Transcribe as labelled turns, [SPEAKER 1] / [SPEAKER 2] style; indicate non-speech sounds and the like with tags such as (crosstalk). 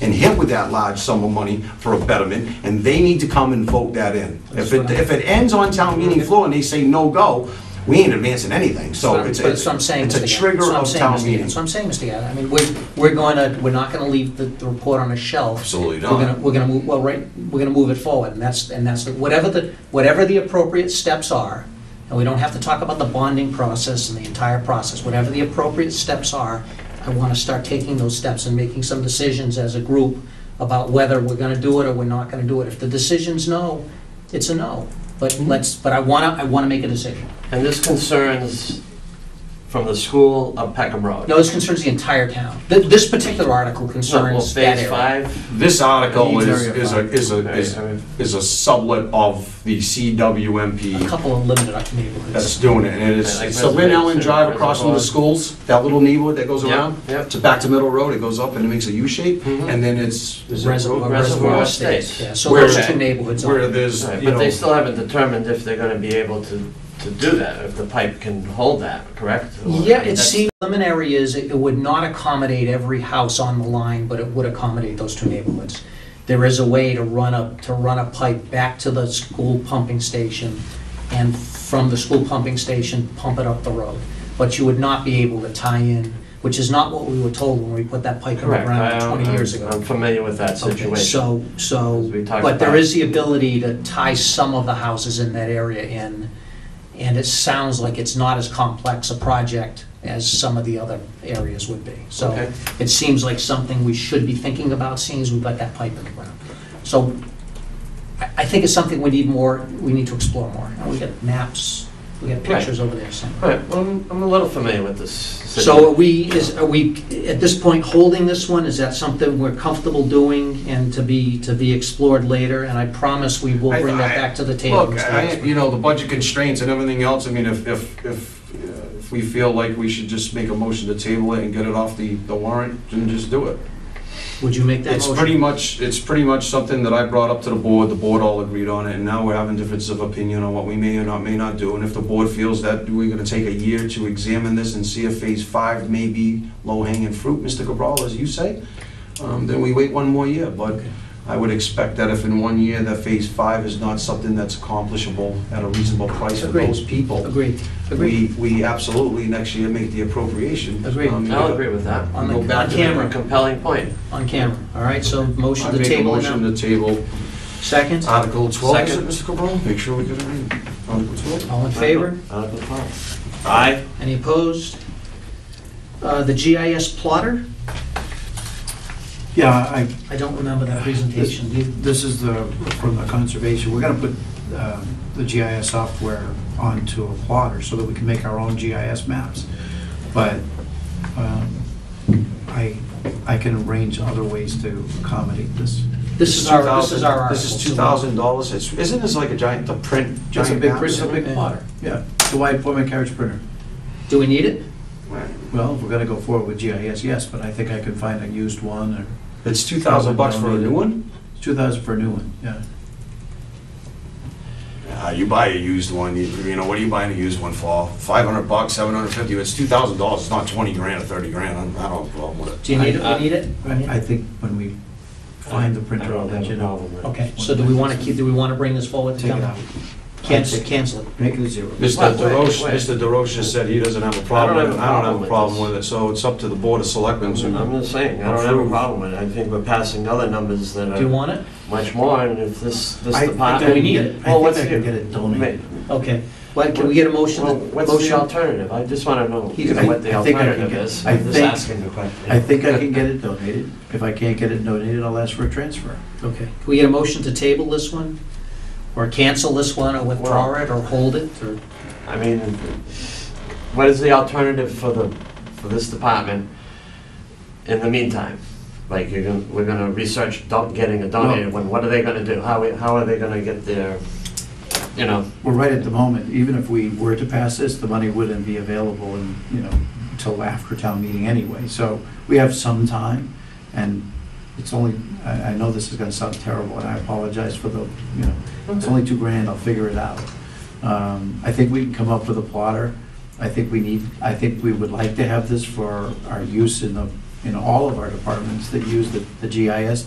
[SPEAKER 1] and hit with that large sum of money for a betterment, and they need to come and vote that in. If it, if it ends on town meeting floor and they say no go, we ain't advancing anything, so
[SPEAKER 2] But
[SPEAKER 1] it's,
[SPEAKER 2] that's what I'm
[SPEAKER 1] it's
[SPEAKER 2] saying, Mr.
[SPEAKER 1] it's a
[SPEAKER 2] Gadd.
[SPEAKER 1] trigger of
[SPEAKER 2] That's what I'm
[SPEAKER 1] town
[SPEAKER 2] saying, Mr. Gadd.
[SPEAKER 1] meeting.
[SPEAKER 2] That's what I'm saying, Mr. Gadd. I mean, we're, we're going to, we're not going to leave the, the report on a shelf.
[SPEAKER 1] Absolutely
[SPEAKER 2] We're
[SPEAKER 1] not.
[SPEAKER 2] going to, we're going to move, well, right, we're going to move it forward, and that's, and that's, the- whatever the, whatever the appropriate steps are, and we don't have to talk about the bonding process and the entire process, whatever the appropriate steps are, I want to start taking those steps and making some decisions as a group about whether we're going to do it or we're not going to do it. If the decision's no, it's a no. But let's, but I want to, I want to make a decision.
[SPEAKER 3] And this concerns from the school up Peckham Road.
[SPEAKER 2] No, this concerns the entire town. Th- This particular article
[SPEAKER 3] So, well,
[SPEAKER 2] concerns that
[SPEAKER 3] phase
[SPEAKER 2] area.
[SPEAKER 3] five?
[SPEAKER 1] This article is, is a, is a,
[SPEAKER 3] Okay,
[SPEAKER 1] is-
[SPEAKER 3] I mean,
[SPEAKER 1] is a sublet of the
[SPEAKER 2] A
[SPEAKER 1] CWMP
[SPEAKER 2] couple of limited uh, neighborhoods.
[SPEAKER 1] that's doing it, and it is,
[SPEAKER 3] I like
[SPEAKER 1] it's the Lynn Ellen
[SPEAKER 3] residents,
[SPEAKER 1] Drive across from the
[SPEAKER 3] reservoir.
[SPEAKER 1] schools, that little neighborhood that goes
[SPEAKER 3] Yep,
[SPEAKER 1] around.
[SPEAKER 3] yep.
[SPEAKER 1] To back to Middle Road, it goes up and it makes a U shape,
[SPEAKER 3] Mhm.
[SPEAKER 1] and then it's, is it
[SPEAKER 2] Mm-hmm. Reservoir,
[SPEAKER 1] Road-
[SPEAKER 2] Reservoir
[SPEAKER 3] Reservoir
[SPEAKER 2] Estates.
[SPEAKER 3] Estates.
[SPEAKER 2] Yeah, so
[SPEAKER 1] Where
[SPEAKER 2] those
[SPEAKER 1] that-
[SPEAKER 2] two neighborhoods. are-
[SPEAKER 1] where there's,
[SPEAKER 3] Right,
[SPEAKER 1] you
[SPEAKER 3] But they
[SPEAKER 1] know,
[SPEAKER 3] still haven't determined if they're gonna be able to, to do that, if the pipe can hold that, correct? Or-
[SPEAKER 2] Yeah,
[SPEAKER 3] I mean,
[SPEAKER 2] it
[SPEAKER 3] that's-
[SPEAKER 2] seems preliminary is it it would not accommodate every house on the line, but it would accommodate those two neighborhoods. There is a way to run a, to run a pipe back to the school pumping station and from the school pumping station, pump it up the road. But you would not be able to tie in, which is not what we were told when we put that pipe in the
[SPEAKER 3] Correct,
[SPEAKER 2] ground
[SPEAKER 3] I-
[SPEAKER 2] 20 years ago.
[SPEAKER 3] I'm familiar with that
[SPEAKER 2] Okay,
[SPEAKER 3] situation.
[SPEAKER 2] so, so,
[SPEAKER 3] As we talked
[SPEAKER 2] but there
[SPEAKER 3] about.
[SPEAKER 2] is the ability to tie some of the houses in that area in, and it sounds like it's not as complex a project as some of the other areas would be. So
[SPEAKER 3] Okay.
[SPEAKER 2] it seems like something we should be thinking about, seeing as we've got that pipe in the ground. So I, I think it's something we need more, we need to explore more. Now, we got maps, we got
[SPEAKER 3] Right.
[SPEAKER 2] pictures over there somewhere.
[SPEAKER 3] Right, well, I'm, I'm a little familiar with this situation.
[SPEAKER 2] So are we, is, are we, at this point, holding this one? Is that something we're comfortable doing and to be, to be explored later? And I promise we will bring that back to the table.
[SPEAKER 1] Look,
[SPEAKER 2] Mr.
[SPEAKER 1] I,
[SPEAKER 2] Axman.
[SPEAKER 1] you know, the budget constraints and everything else, I mean, if, if, if, uh, if we feel like we should just make a motion to table it and get it off the, the warrant, then just do it.
[SPEAKER 2] Would you make that
[SPEAKER 1] It's pretty
[SPEAKER 2] motion?
[SPEAKER 1] much, it's pretty much something that I brought up to the board, the board all agreed on it, and now we're having differences of opinion on what we may or not, may not do, and if the board feels that we're gonna take a year to examine this and see if phase five may be low-hanging fruit, Mr. Cabral, as you say, um, then we wait one more year, but I would expect that if in one year that phase five is not something that's accomplishable at a reasonable price for
[SPEAKER 2] Agreed.
[SPEAKER 1] those people,
[SPEAKER 2] Agreed, agreed.
[SPEAKER 1] we, we absolutely next year make the appropriation.
[SPEAKER 2] Agreed.
[SPEAKER 1] Um,
[SPEAKER 3] I'll agree with that.
[SPEAKER 2] On
[SPEAKER 1] go
[SPEAKER 2] the,
[SPEAKER 1] back
[SPEAKER 2] on
[SPEAKER 1] to
[SPEAKER 3] A
[SPEAKER 2] camera,
[SPEAKER 3] compelling point.
[SPEAKER 2] on camera. All right, so
[SPEAKER 1] I
[SPEAKER 2] motion to
[SPEAKER 1] make a
[SPEAKER 2] table it
[SPEAKER 1] motion Uh,
[SPEAKER 2] now.
[SPEAKER 1] to table
[SPEAKER 2] Second,
[SPEAKER 1] Article 12, is it,
[SPEAKER 3] Second.
[SPEAKER 1] Mr. Cabral? Make sure we get it in. Article 12?
[SPEAKER 2] all in favor?
[SPEAKER 3] Article twelve. Aye.
[SPEAKER 2] Any opposed? Uh, the GIS plotter?
[SPEAKER 4] Yeah, I,
[SPEAKER 2] I don't remember that
[SPEAKER 4] this
[SPEAKER 2] presentation. Do you-
[SPEAKER 4] this is the, from the conservation, we're gonna put uh, the GIS software onto a plotter so that we can make our own GIS maps. But um, I, I can arrange other ways to accommodate this.
[SPEAKER 2] This is our, this is our
[SPEAKER 1] 2000
[SPEAKER 2] article.
[SPEAKER 1] This is
[SPEAKER 2] so-
[SPEAKER 1] $2,000. It's- Isn't this like a giant, the print,
[SPEAKER 4] It's a
[SPEAKER 1] giant
[SPEAKER 4] big,
[SPEAKER 1] map?
[SPEAKER 4] it's a big plotter, yeah. So why put my carriage printer?
[SPEAKER 2] Do we need it?
[SPEAKER 4] Well, if we're gonna go forward with GIS, yes, but I think I can find a used one or,
[SPEAKER 1] It's 2,000 bucks for a new one?
[SPEAKER 4] it's two thousand for a new one, yeah.
[SPEAKER 1] Uh, You buy a used one, you- you know, what are you buying a used one for? 500 bucks, 750, it's $2,000, it's not 20 grand or 30 grand, I'm- I don't have a problem with it.
[SPEAKER 2] Do you need it? We need it? We need it?
[SPEAKER 4] I I think when we find the printer, I'll let you know.
[SPEAKER 2] Okay, so do we want to keep, do we want to bring this forward to
[SPEAKER 4] Take it
[SPEAKER 2] come?
[SPEAKER 4] out,
[SPEAKER 2] Cancel, cancel it.
[SPEAKER 4] make it a zero.
[SPEAKER 1] Mr.
[SPEAKER 3] Wait, wait,
[SPEAKER 1] DeRoche,
[SPEAKER 3] wait.
[SPEAKER 1] Mr. DeRoche has said he doesn't have a problem with it, and I don't have a problem
[SPEAKER 3] this.
[SPEAKER 1] with it, so it's up to the Board of Selectmen to
[SPEAKER 3] I'm just saying, I don't have a problem with it. I think we're passing other numbers that
[SPEAKER 2] Do you
[SPEAKER 3] are
[SPEAKER 2] want it?
[SPEAKER 3] much more, and if this, this
[SPEAKER 4] I- I
[SPEAKER 3] department...
[SPEAKER 2] think we need it.
[SPEAKER 4] I
[SPEAKER 3] Well,
[SPEAKER 4] think
[SPEAKER 3] what's
[SPEAKER 4] I
[SPEAKER 3] the-
[SPEAKER 4] can get it donated.
[SPEAKER 2] Okay. Well, can we get a motion?
[SPEAKER 3] Well, What's the
[SPEAKER 2] Motion-
[SPEAKER 3] alternative? I just want to know
[SPEAKER 4] You can-
[SPEAKER 3] what the
[SPEAKER 4] I think I can
[SPEAKER 3] alternative
[SPEAKER 4] get-
[SPEAKER 3] is.
[SPEAKER 4] I
[SPEAKER 3] I'm just
[SPEAKER 4] think-
[SPEAKER 3] asking the question.
[SPEAKER 4] I think I can get it donated. If I can't get it donated, I'll ask for a transfer.
[SPEAKER 2] Okay. Can we get a motion to table this one? Or cancel this one, or withdraw it, or hold it, or?
[SPEAKER 3] (laughs) I mean, what is the alternative for the, for this department in the meantime? Like, you're gonna, we're gonna research don't getting a donated one, what are they gonna do? How, we- how are they gonna get their, you know?
[SPEAKER 4] Well, right at the moment, even if we were to pass this, the money wouldn't be available and, you know, until after town meeting anyway. So we have some time and it's only, I, I know this is gonna sound terrible and I apologize for the, you know, it's only two grand, I'll figure it out. Um, I think we can come up with a plotter. I think we need, I think we would like to have this for our use in the, in all of our departments that use the the GIS